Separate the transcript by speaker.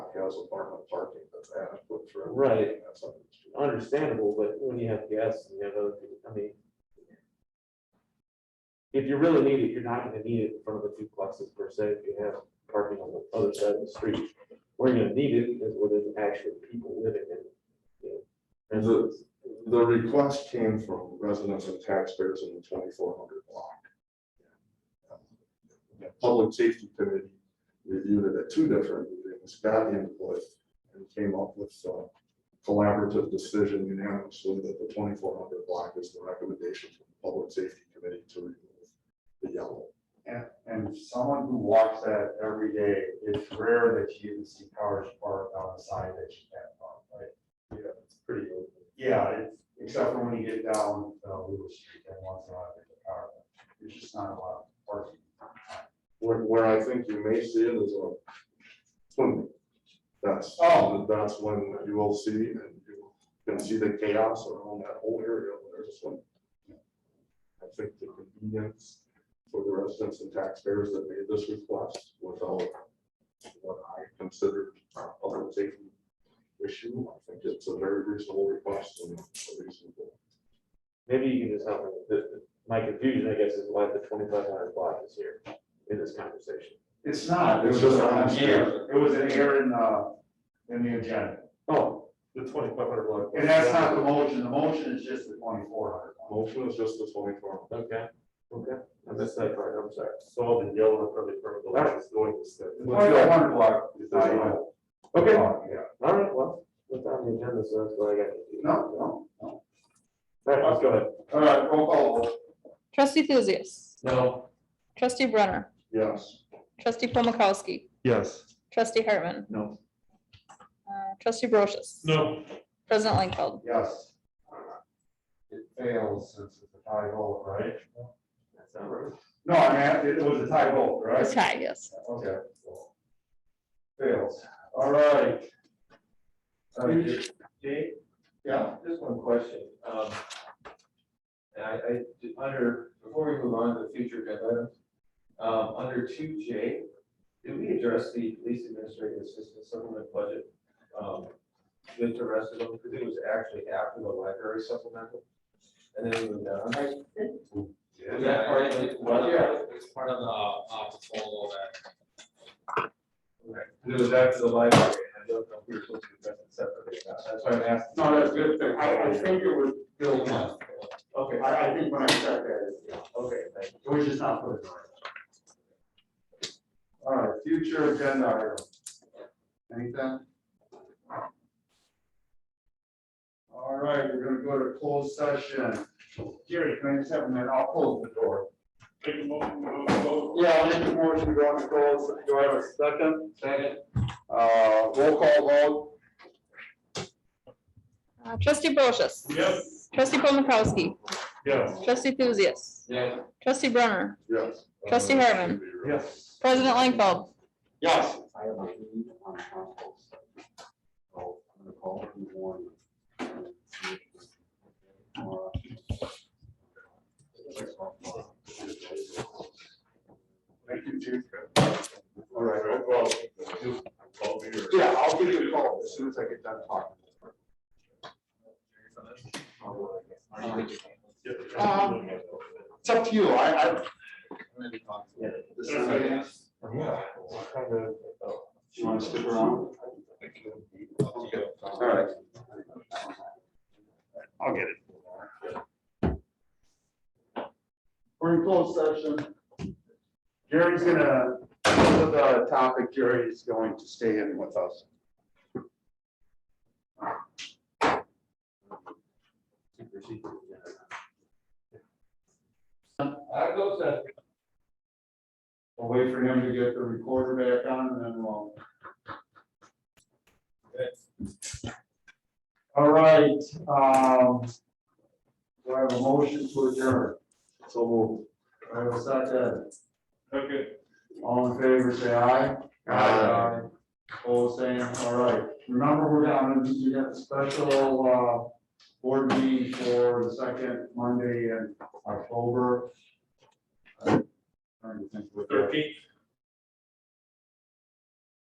Speaker 1: has apartment parking that's adequate for. everything,
Speaker 2: Right.
Speaker 1: that's something that's true.
Speaker 2: understandable, but when you have guests and you have other people, I mean. If you really need it, you're not gonna need it in front of the duplexes per se, if you have parking on the other side of the street. Where you're gonna need it is where there's actually people living in, you know.
Speaker 1: Is it- The request came from residents and taxpayers in the twenty-four hundred block. The Public Safety Committee reviewed it at two different meetings, got input, and came up with a collaborative decision unanimously that the twenty-four hundred block is the recommendation from the Public Safety Committee to remove the yellow.
Speaker 3: And, and someone who walks that every day, it's rare that you even see cars parked on the side that you can't park, right? Yeah, it's pretty. Yeah, it's, except for when you get down, uh, Lewis Street, and once in a while, there's a car, but there's just not a lot of parking.
Speaker 1: Where, where I think you may see it is on swimming. That's,
Speaker 3: Oh.
Speaker 1: that's when you will see and you can see the chaos around that whole area when there's a swim. I think the convenience for the residents and taxpayers that made this request without what I considered a public safety issue, I think it's a very reasonable request and a reasonable.
Speaker 2: Maybe you can just help me, The- the- my confusion, I guess, is why the twenty-five hundred block is here in this conversation.
Speaker 3: It's not, it
Speaker 1: It's
Speaker 3: was
Speaker 1: just
Speaker 3: just
Speaker 1: on the
Speaker 3: an
Speaker 1: street.
Speaker 3: error, it was an error in, uh, in the agenda.
Speaker 2: Oh, the twenty-five hundred block.
Speaker 3: And that's not the motion, the motion is just the twenty-four hundred.
Speaker 1: Motion is just the twenty-four.
Speaker 2: Okay, okay, I missed that part, I'm sorry.
Speaker 4: So the yellow from the, from the left is going to step.
Speaker 3: Twenty-four hundred block is
Speaker 1: There's
Speaker 3: not.
Speaker 1: no-
Speaker 3: even-
Speaker 2: Okay, all
Speaker 3: Oh, Yeah,
Speaker 2: right, well, that's on the agenda, so that's what I got. confused.
Speaker 3: no,
Speaker 2: All
Speaker 3: no, no.
Speaker 2: right, let's go ahead.
Speaker 3: All right, roll call vote.
Speaker 5: Trustee Thuzius.
Speaker 2: No.
Speaker 5: Trustee Brunner.
Speaker 1: Yes.
Speaker 5: Trustee Paul Mikowski.
Speaker 1: Yes.
Speaker 5: Trustee Hartman.
Speaker 1: No.
Speaker 5: Uh, Trustee Brochus.
Speaker 4: No.
Speaker 5: President Langfeld.
Speaker 3: Yes. It fails since it's a tie vote, right?
Speaker 2: That's not right.
Speaker 3: No, I mean, it was a tie vote, right?
Speaker 5: It's high, yes.
Speaker 3: Okay. so Fails, all right. Uh,
Speaker 4: Jay,
Speaker 3: Yeah,
Speaker 4: just one question. Um, and I, I, under, before we move on to the future agenda items, um, under two J, did we address the police administrative assistant supplement budget? Um, with the rest of them, because it was actually after the library supplemental. And then we moved down. Was that part of it?
Speaker 6: Well, yeah, it's part of the, uh, proposal that,
Speaker 4: Okay. It was after the library, and I don't know if we were supposed to address it separately. or not. That's why I'm asking.
Speaker 3: no, that's a good, thing. I, I think it was Bill Munn.
Speaker 4: Okay,
Speaker 3: I, I think when I checked that, it's, yeah.
Speaker 4: okay, thank you.
Speaker 3: It was just not put in order. All right, future agenda item. Anything? All right, we're gonna go to closed session. Gary, can I just have a minute? I'll close the door. Yeah, I'll make a motion to go into closed. Do I have a second? Second. Uh, roll call vote.
Speaker 5: Uh, Trustee Brochus.
Speaker 4: Yes.
Speaker 5: Trustee Paul Mikowski.
Speaker 4: Yes.
Speaker 5: Trustee Thuzius.
Speaker 6: yeah,
Speaker 5: Trustee Brunner.
Speaker 1: Yes.
Speaker 5: Trustee Hartman.
Speaker 3: Yes.
Speaker 5: President Langfeld.
Speaker 3: Yes.
Speaker 7: I have a meeting on council. So I'm gonna call in the morning. and see if we can get it tomorrow.
Speaker 3: Thank you, Chief.
Speaker 1: All right, well, you call me or.
Speaker 3: Yeah, I'll give you a call as soon as I get done talking. Um, It's up to you. I, I,
Speaker 7: This is a-
Speaker 1: Yeah.
Speaker 7: You wanna stick around?
Speaker 3: all right. I'll get it. We're in closed session. Gary's gonna, for the topic, Gary's going to stay in with us. I go that. We'll wait for him to get the recorder back on and then we'll. All right, um. Do I have a motion to adjourn? So moved. Do I have a second?
Speaker 4: Okay.
Speaker 3: All in favor, say aye.
Speaker 1: Aye.
Speaker 3: All saying, all right. Remember, we're down, we got a special, uh, board meeting for the second Uh, Monday in October. I don't think we're-
Speaker 4: Thirteenth.